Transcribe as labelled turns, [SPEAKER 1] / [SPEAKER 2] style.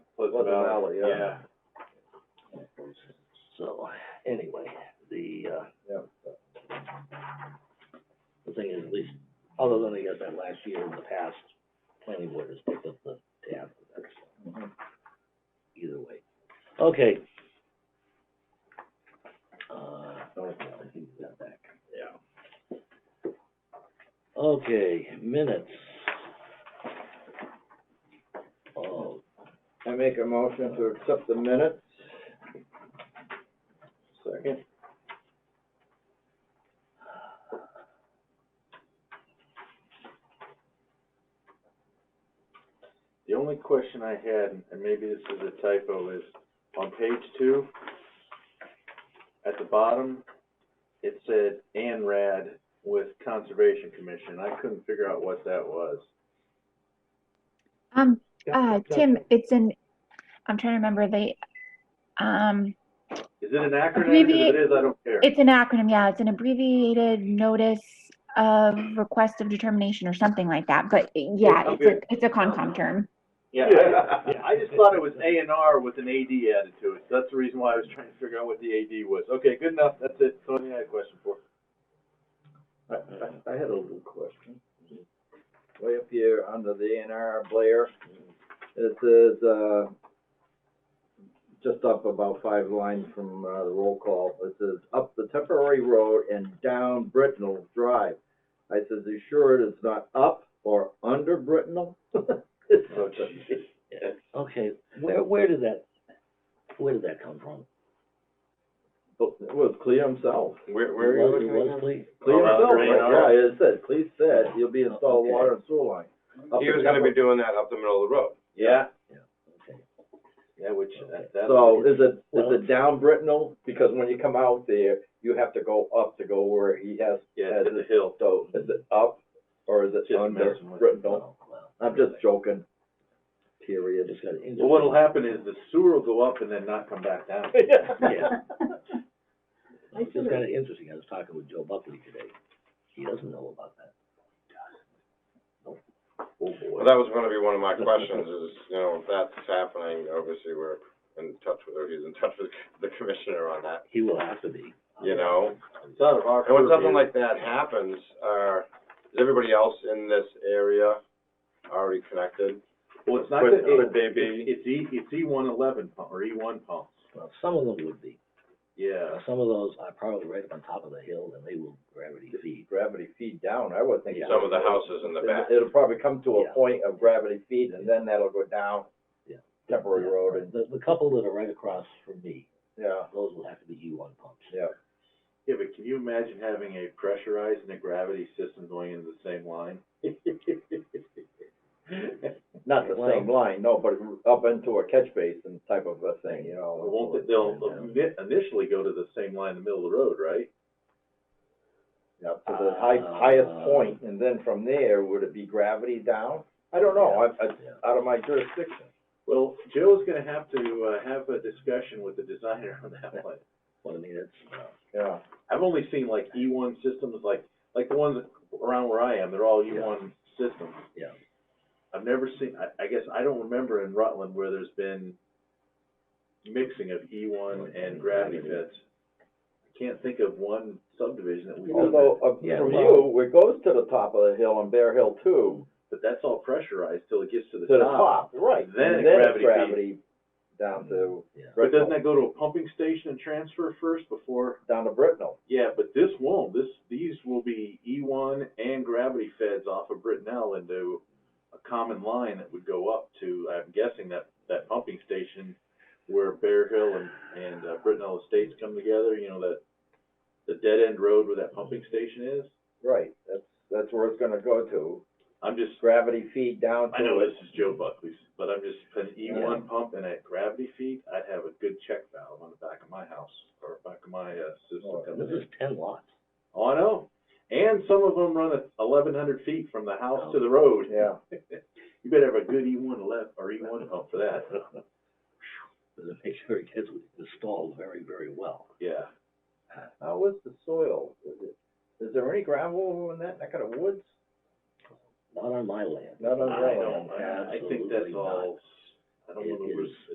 [SPEAKER 1] was a valley, yeah.
[SPEAKER 2] So, anyway, the, uh,
[SPEAKER 1] Yeah.
[SPEAKER 2] the thing is, at least, other than I guess that last year in the past, planning board has picked up the tab for that, so. Either way. Okay. Uh, I think we got that.
[SPEAKER 1] Yeah.
[SPEAKER 2] Okay, minutes. Oh,
[SPEAKER 1] I make a motion to accept the minutes. Second.
[SPEAKER 3] The only question I had, and maybe this is a typo, is on page two, at the bottom, it said ANRAD with Conservation Commission. I couldn't figure out what that was.
[SPEAKER 4] Um,
[SPEAKER 2] yeah,
[SPEAKER 4] uh,
[SPEAKER 2] yeah.
[SPEAKER 4] Tim, it's an, I'm trying to remember the, um,
[SPEAKER 3] Is it an acronym? If
[SPEAKER 4] Abbreviate-
[SPEAKER 3] it is, I don't care.
[SPEAKER 4] it's an acronym, yeah, it's an abbreviated notice of request of determination or something like that, but yeah, it's a, it's a Concom term.
[SPEAKER 3] Yeah,
[SPEAKER 2] Yeah.
[SPEAKER 3] I just thought it was A and R with an AD added to it. That's the reason why I was trying to figure out what the AD was. Okay, good enough. That's it. That's all I had a question for.
[SPEAKER 1] I, I, I had a little question. Way up here under the A and R Blair, it says, uh, just up about five lines from, uh, the roll call, it says, up the temporary road and down Britnell Drive. I says, you sure it is not up or under Britnell?
[SPEAKER 3] Oh, geez.
[SPEAKER 2] Okay, where, where did that, where did that come from?
[SPEAKER 1] Well, it was Clea himself.
[SPEAKER 3] Where, where are
[SPEAKER 2] It
[SPEAKER 3] you
[SPEAKER 2] was-
[SPEAKER 3] looking?
[SPEAKER 2] it was Cle-
[SPEAKER 1] Clea
[SPEAKER 3] Oh,
[SPEAKER 1] himself,
[SPEAKER 3] right, right.
[SPEAKER 1] yeah, it said, Clea said, he'll be installed
[SPEAKER 2] Okay.
[SPEAKER 1] water and sewer line. Up
[SPEAKER 5] He was
[SPEAKER 1] the
[SPEAKER 5] gonna be
[SPEAKER 1] temporary-
[SPEAKER 5] doing that up the middle of the road.
[SPEAKER 1] Yeah,
[SPEAKER 2] okay.
[SPEAKER 3] Yeah, which, uh, that, that.
[SPEAKER 1] so is it, is it down Britnell? Because when you come out there, you have to go up to go where he has,
[SPEAKER 3] Yeah,
[SPEAKER 1] has
[SPEAKER 3] to the
[SPEAKER 1] it,
[SPEAKER 3] hill.
[SPEAKER 1] so is it up or is it
[SPEAKER 3] Just
[SPEAKER 1] under
[SPEAKER 3] messing with-
[SPEAKER 1] Britnell?
[SPEAKER 2] Well, Oh, well,
[SPEAKER 1] I'm just joking,
[SPEAKER 2] I
[SPEAKER 1] period.
[SPEAKER 2] just got an.
[SPEAKER 3] Well, what'll happen is the sewer will go up and then not come back down.
[SPEAKER 2] Yeah. Well, It's kind of interesting, I was talking with Joe Buckley today, he doesn't know about that.
[SPEAKER 3] Oh, boy.
[SPEAKER 5] Well, that was gonna be one of my questions is, you know, if that's happening, obviously we're in touch with, or he's in touch with the commissioner on that,
[SPEAKER 2] He will have to be.
[SPEAKER 5] you know?
[SPEAKER 3] It's out of our
[SPEAKER 5] And when something
[SPEAKER 3] purview.
[SPEAKER 5] like that happens, uh, is everybody else in this area already connected?
[SPEAKER 3] Well, it's not
[SPEAKER 5] Could-
[SPEAKER 3] that,
[SPEAKER 5] could
[SPEAKER 3] it,
[SPEAKER 5] they be,
[SPEAKER 3] it's E, it's E one eleven pump, or E one pumps,
[SPEAKER 2] Well, some of them would be, Uh,
[SPEAKER 3] yeah.
[SPEAKER 2] some of those are probably right up on top of the hill and they will gravity feed.
[SPEAKER 1] Gravity feed down, I would think.
[SPEAKER 2] Yeah.
[SPEAKER 5] some of the houses in the back?
[SPEAKER 1] It'll probably come to
[SPEAKER 2] Yeah.
[SPEAKER 1] a point of gravity feed and then that'll go down
[SPEAKER 2] Yeah.
[SPEAKER 1] temporary road and,
[SPEAKER 2] The, the couple that are right across from me,
[SPEAKER 1] yeah,
[SPEAKER 2] those will have to be U one pumps.
[SPEAKER 1] yeah.
[SPEAKER 3] Yeah, but can you imagine having a pressurized and a gravity system going into the same line?
[SPEAKER 1] Not the
[SPEAKER 2] Right.
[SPEAKER 1] same line, no, but up into a catch basin type of a thing, you know.
[SPEAKER 3] Won't, they- they'll ini- initially go to the same line in the middle of the road, right?
[SPEAKER 1] Yeah, to the high,
[SPEAKER 3] Ah.
[SPEAKER 1] highest point, and then from there, would it be gravity down? I don't know, I, I,
[SPEAKER 2] Yeah.
[SPEAKER 1] out of my jurisdiction.
[SPEAKER 3] Well, Joe's gonna have to, uh, have a discussion with the designer on that one.
[SPEAKER 2] Well, I mean, it's, uh,
[SPEAKER 1] Yeah,
[SPEAKER 3] I've only seen like E one systems, like, like the ones around where I am, they're all E one systems.
[SPEAKER 2] yeah,
[SPEAKER 3] I've never seen, I, I guess, I don't remember in Rutland where there's been mixing of E one and gravity pits. I Can't think of one subdivision that we've done
[SPEAKER 1] although,
[SPEAKER 3] that,
[SPEAKER 1] uh,
[SPEAKER 2] Yeah,
[SPEAKER 1] from
[SPEAKER 2] well-
[SPEAKER 1] you, it goes to the top of the hill on Bear Hill too,
[SPEAKER 3] but that's all pressurized till it gets to the
[SPEAKER 1] to the
[SPEAKER 3] top.
[SPEAKER 1] top, right, and
[SPEAKER 3] Then it
[SPEAKER 1] then it's
[SPEAKER 3] gravity feed.
[SPEAKER 1] gravity down to,
[SPEAKER 2] yeah.
[SPEAKER 3] But doesn't that go to a pumping station and transfer first before?
[SPEAKER 1] down to Britnell.
[SPEAKER 3] Yeah, but this won't, this, these will be E one and gravity feds off of Brittenell into a common line that would go up to, I'm guessing that, that pumping station where Bear Hill and, and uh, Brittenell Estates come together, you know, that, the dead end road where that pumping station is.
[SPEAKER 1] Right, that's, that's where it's gonna go to,
[SPEAKER 3] I'm just,
[SPEAKER 1] gravity feed down to it.
[SPEAKER 3] I know this is Joe Buckley's, but I'm just, an E one pump and a gravity feed, I'd have a good check valve on the back of my house or back of my, uh, system
[SPEAKER 1] Oh,
[SPEAKER 3] coming
[SPEAKER 2] This
[SPEAKER 3] in.
[SPEAKER 2] is ten lots.
[SPEAKER 3] Oh, I know. And some of them run at eleven hundred feet from the house to the road.
[SPEAKER 1] Yeah,
[SPEAKER 3] You better have a good E one left or E one pump for that.
[SPEAKER 2] But to make sure it gets installed very, very well.
[SPEAKER 3] Yeah.
[SPEAKER 1] how is the soil? Is it- Is there any gravel over in that, that kind of woods?
[SPEAKER 2] Not on my land.
[SPEAKER 1] Not on
[SPEAKER 3] I
[SPEAKER 1] your land.
[SPEAKER 3] don't, I, I think that's
[SPEAKER 2] Absolutely not.
[SPEAKER 3] all, I don't know
[SPEAKER 2] It
[SPEAKER 3] the
[SPEAKER 2] is-